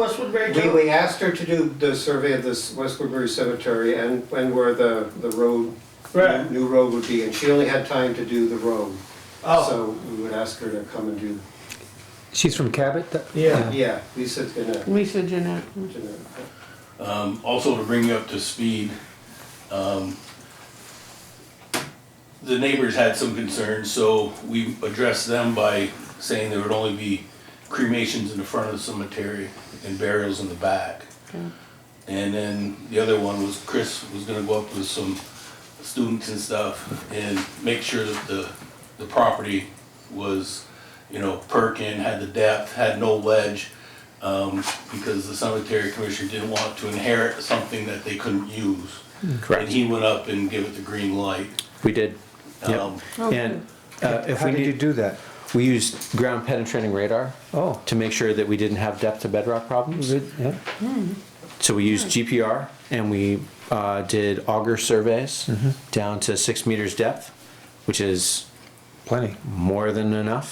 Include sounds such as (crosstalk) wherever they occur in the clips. West Woodbury We, too? we asked her to do the survey of this West Woodbury Cemetery and, and where the, the road, Right. new road would be, and she only had time to do the road. Oh, So we would ask her to come and do, She's from Cabot? that- Yeah. yeah, Lisa's gonna, Lisa Jeanette. gonna- Um, also to bring you up to speed, um, the neighbors had some concerns, so we addressed them by saying there would only be cremations in the front of the cemetery and burials in the back. And then the other one was Chris was gonna go up with some students and stuff and make sure that the, the property was, you know, perking, had the depth, had no ledge, um, because the cemetery commission didn't want to inherit something that they couldn't use. And Correct. he went up and gave it the green light. We did. Yep. Um, And uh, if How we did you need, do that? we used ground penetrating radar Oh, to make sure that we didn't have depth to bedrock problems. good, yeah. So we used GPR and we uh, did auger surveys Mm-hmm. down to six meters depth, which is plenty. more than enough.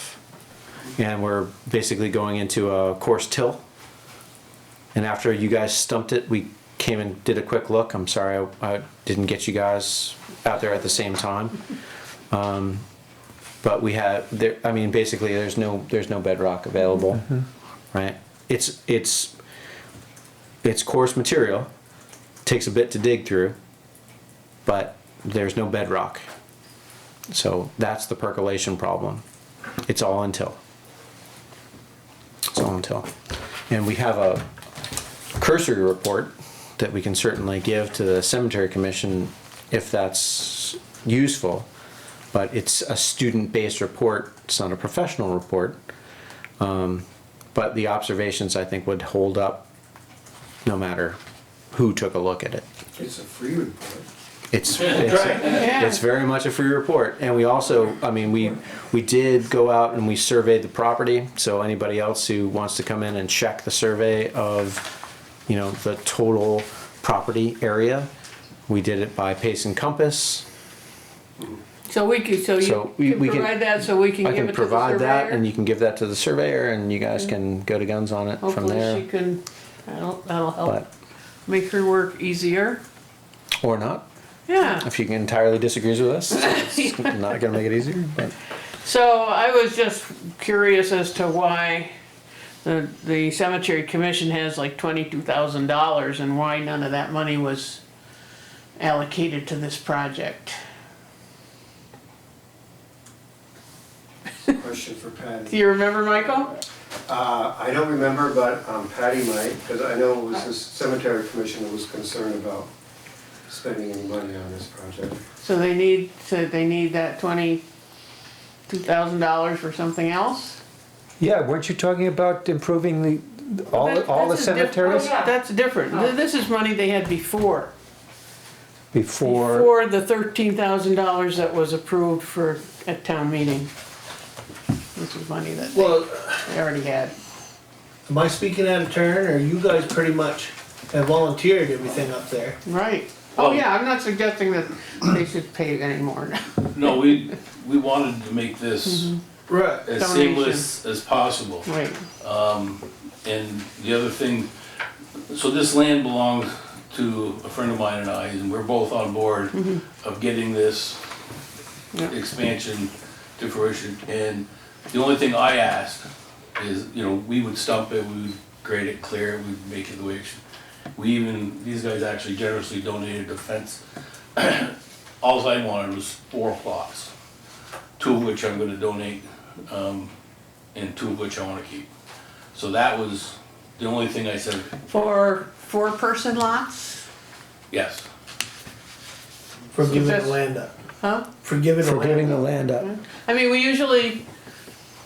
And we're basically going into a course till. And after you guys stumped it, we came and did a quick look. I'm sorry I, I didn't get you guys out there at the same time. Um, but we had there. I mean, basically, there's no there's no bedrock available, right? It's it's it's coarse material. Takes a bit to dig through, but there's no bedrock. So that's the percolation problem. It's all until. It's all until. And we have a cursory report that we can certainly give to the cemetery commission if that's useful. But it's a student-based report, it's not a professional report. Um, But the observations, I think, would hold up no matter who took a look at it. it's a free report. It's, that's it's, right. Yeah. it's very much a free report, and we also, I mean, we, we did go out and we surveyed the property, so anybody else who wants to come in and check the survey of, you know, the total property area, we did it by pace and compass. So we could, so So you we- can we can- provide that, so we can I give can it to the provide that, and surveyor? Mm-hmm. you can give that to the surveyor, and you guys can go to guns on it from Hopefully she there, can, that'll, that'll help but, make her work easier. or not, Yeah, if she entirely disagrees with us, it's not gonna make it easier, but. (laughs) so I was just curious as to why the, the cemetery commission has like twenty-two thousand dollars and why none of that money was allocated to this project. Question for Do Patty. you remember, Michael? Uh, I don't remember, but um, Patty might, because I know it was the cemetery commission that was concerned about spending any money on this project. So they need, so they need that twenty-two thousand dollars for something else? Yeah, weren't you talking about improving the, all, That- all the that's a diff- Oh. cemeteries? that's- That's different. Th- This is money they had before, Before, before the thirteen thousand dollars that was approved for, at town meeting. This is money that they- Well, they already had. am I speaking out of turn or you guys pretty much have volunteered everything up there? Right. Oh, Well- yeah, I'm not suggesting that they should pay anymore. (laughs) No, we, we wanted to make this Right. Mm-hmm. as Donation. seamless as possible. Right, And the other thing, so this land belongs to a friend of mine and I, and we're both on board of getting this Yeah. expansion to fruition. And the only thing I asked is, you know, we would stump it, we would grade it clear, we'd make it the way it should. We even, these guys actually generously donated a fence. (clears throat) Alls I wanted was four plots, two of which I'm gonna donate, um, and two of which I wanna keep. So that was the only thing I said, for four-person lots, yes. For giving the That's- land up. huh? For giving the for giving land the up. land up. I mean, we usually,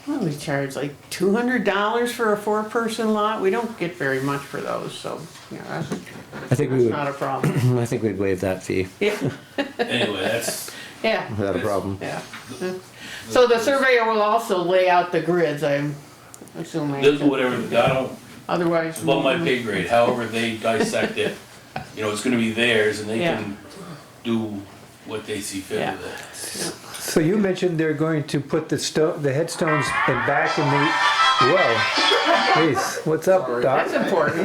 well, we charge like two hundred dollars for a four-person lot, we don't get very much for those, so, you know, that's, I think that's we would, not a problem. I think we'd waive that fee Yeah, Anyway, that's, yeah, without a problem. yeah. So the surveyor will also lay out the grids, I'm this is assuming, whatever, I don't, otherwise. it's above my pay grade, however they dissect it. You know, it's gonna be theirs and they Yeah. can do what they see fit with it. So you mentioned they're going to put the sto, the headstones and back in the, whoa. Jeez, what's up, Doc? That's important.